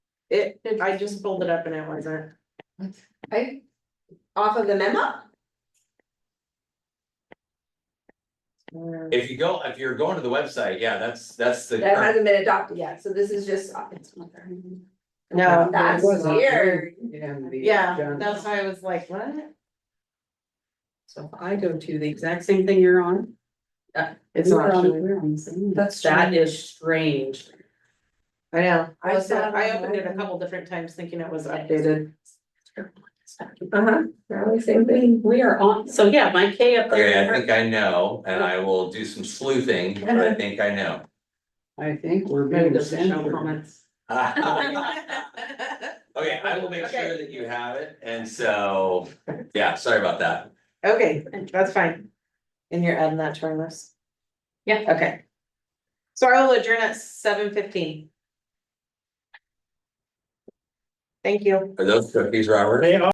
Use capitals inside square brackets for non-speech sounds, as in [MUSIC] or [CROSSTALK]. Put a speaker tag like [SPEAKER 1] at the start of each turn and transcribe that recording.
[SPEAKER 1] It, I just pulled it up and it wasn't.
[SPEAKER 2] Okay,
[SPEAKER 1] Off of the memo? Mm,
[SPEAKER 3] If you go, if you're going to the website, yeah, that's, that's the.
[SPEAKER 2] that
[SPEAKER 3] current-
[SPEAKER 2] hasn't been adopted yet, so this is just. uh-huh.
[SPEAKER 1] No,
[SPEAKER 2] That's
[SPEAKER 4] was on-
[SPEAKER 2] weird.
[SPEAKER 4] Yeah, the-
[SPEAKER 1] yeah,
[SPEAKER 4] John.
[SPEAKER 1] that's why I was like, what?
[SPEAKER 4] So if I go to the exact same thing you're on.
[SPEAKER 1] It's
[SPEAKER 4] we're
[SPEAKER 1] not
[SPEAKER 4] on-
[SPEAKER 1] showing.
[SPEAKER 4] we're on the same.
[SPEAKER 2] That's
[SPEAKER 4] That is strange.
[SPEAKER 1] I know, I
[SPEAKER 2] Was
[SPEAKER 1] saw,
[SPEAKER 2] that
[SPEAKER 1] I
[SPEAKER 2] on
[SPEAKER 1] opened it a
[SPEAKER 2] the-
[SPEAKER 1] couple different times thinking it was updated.
[SPEAKER 4] Uh huh.
[SPEAKER 2] Uh-huh. same thing.
[SPEAKER 4] We are on, so yeah, my K up
[SPEAKER 3] Okay,
[SPEAKER 4] there.
[SPEAKER 3] I think I know, and I will do some sleuthing, but I think I know.
[SPEAKER 4] I think we're
[SPEAKER 1] Maybe
[SPEAKER 4] being
[SPEAKER 1] there's no
[SPEAKER 4] censored.
[SPEAKER 1] [LAUGHS] comments.
[SPEAKER 3] Okay, I will make sure that you have it, and so, yeah, sorry about that.
[SPEAKER 1] Okay, that's fine. And you're adding that to our list?
[SPEAKER 4] Yeah.
[SPEAKER 1] Okay. So I will adjourn at seven fifteen. Thank you.
[SPEAKER 3] Are those cookies, Robert?